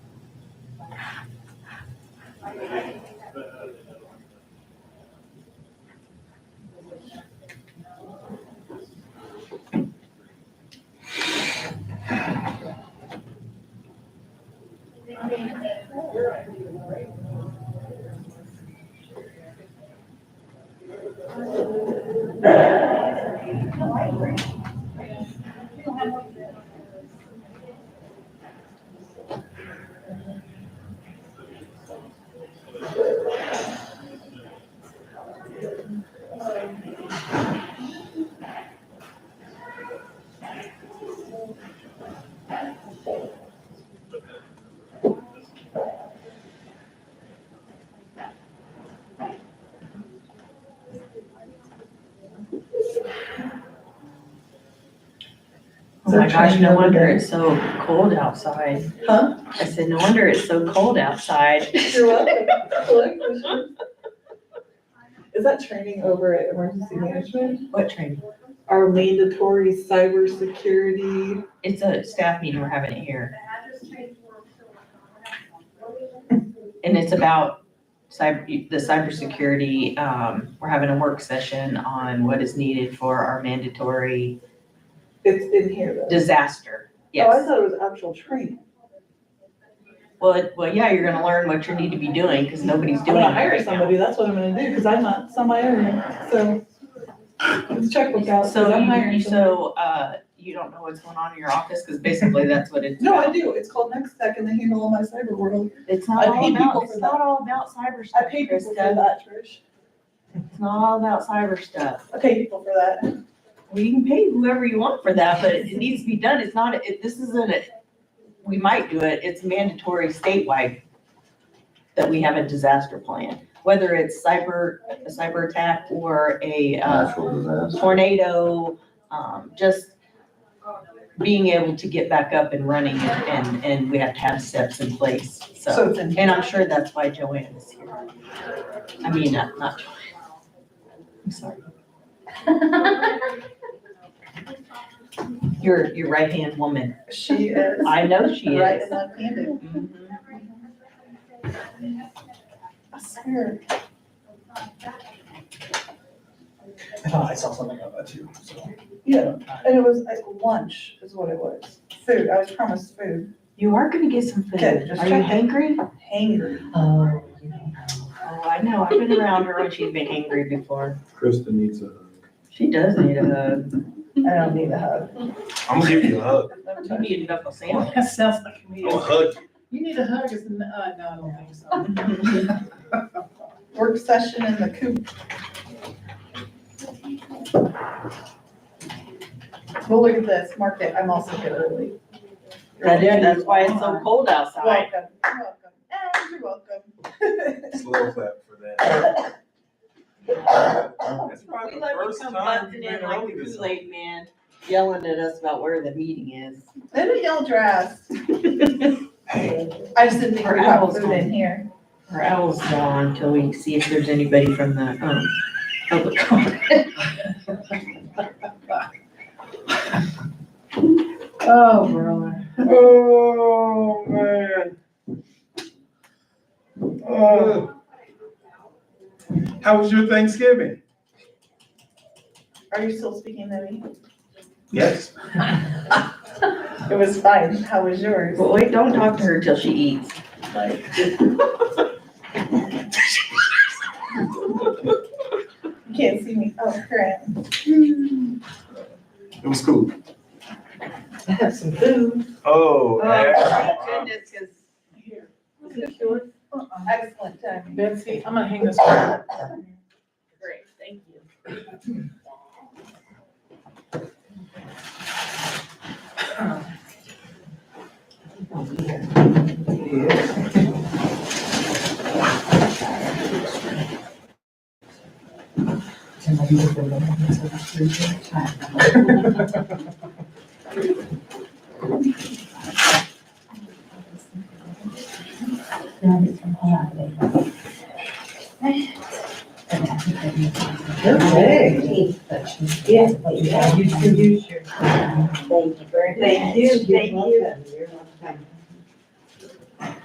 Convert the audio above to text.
Oh my gosh, no wonder it's so cold outside. Huh? I said, no wonder it's so cold outside. You're welcome. Hello, Commissioner. Is that training over at emergency management? What training? Our mandatory cybersecurity. It's a staff meeting, we're having it here, and it's about cyber, the cybersecurity, um, we're having a work session on what is needed for our mandatory It's in here though. disaster, Oh, I yes. thought it was actual training. Well, it- well, yeah, you're gonna learn what you need to be doing, because nobody's I'm doing it gonna hire right now. somebody, that's what I'm gonna do, because I'm not somebody hiring, so. Let's check what's out, 'cause So I'm you, hiring. you- somebody. so, uh, you don't know what's going on in your office, because basically that's what it's No, I about. do, it's called Next Tech and they handle all my cyber world. It's not I all pay about, people it's for not all about cyber I stuff, pay people for Krista. that, Trish. It's not all about cyber stuff. I pay people for that. Well, you can pay whoever you want for that, but it needs to be done. It's not, it, this isn't a, we might do it, it's mandatory statewide that we have a disaster plan, whether it's cyber, a cyber attack or a, uh, natural disaster. tornado, um, just being able to get back up and running and, and we have to have steps in place, so. So it's in. And I'm sure that's why Joanne is here. I mean, not, not Joanne. I'm sorry. Your, your right-hand woman. She is. I know she Right, is. and left-handed. Mhm. I swear. I thought I saw something about that too, so. Yeah, and it was like lunch is what it was. Food, I was promised food. You are gonna get some Good, food. just Are you checking. hangry? Hangry. Oh. Oh, I know. I've been around her when she's been hangry before. Krista needs a. She does need a hug. I don't need a hug. I'm gonna give you a hug. You need a knuckle sandwich. That sounds like me. I'll hug you. You need a hug, it's, n- uh, no, I don't think so. Work session in the coop. Well, look at this, mark it, I'm also good early. That is, that's why it's so cold outside. Welcome, you're welcome, and you're welcome. Slow clap for that. That's probably We the let you first come time you've busting in been like early the this Kool-Aid man, yelling at us about where the meeting is. Look at y'all dressed. I just didn't think Her we have owl's food home. in here. Our owl's gone until we see if there's anybody from the, um, public comment. Oh, brother. Oh, man. Oh. How was your Thanksgiving? Are you still speaking to me? Yes. It was fine, how was yours? But wait, don't talk to her till she eats. Like, you can't see me, oh, crap. It was cool. I have some food. Oh, yeah. goodness, cause. Here. Is it yours? Uh-uh. Excellent timing. Betsy, I'm gonna hang this. one. Great, thank you. Okay. Yes. Thank you. Thank you.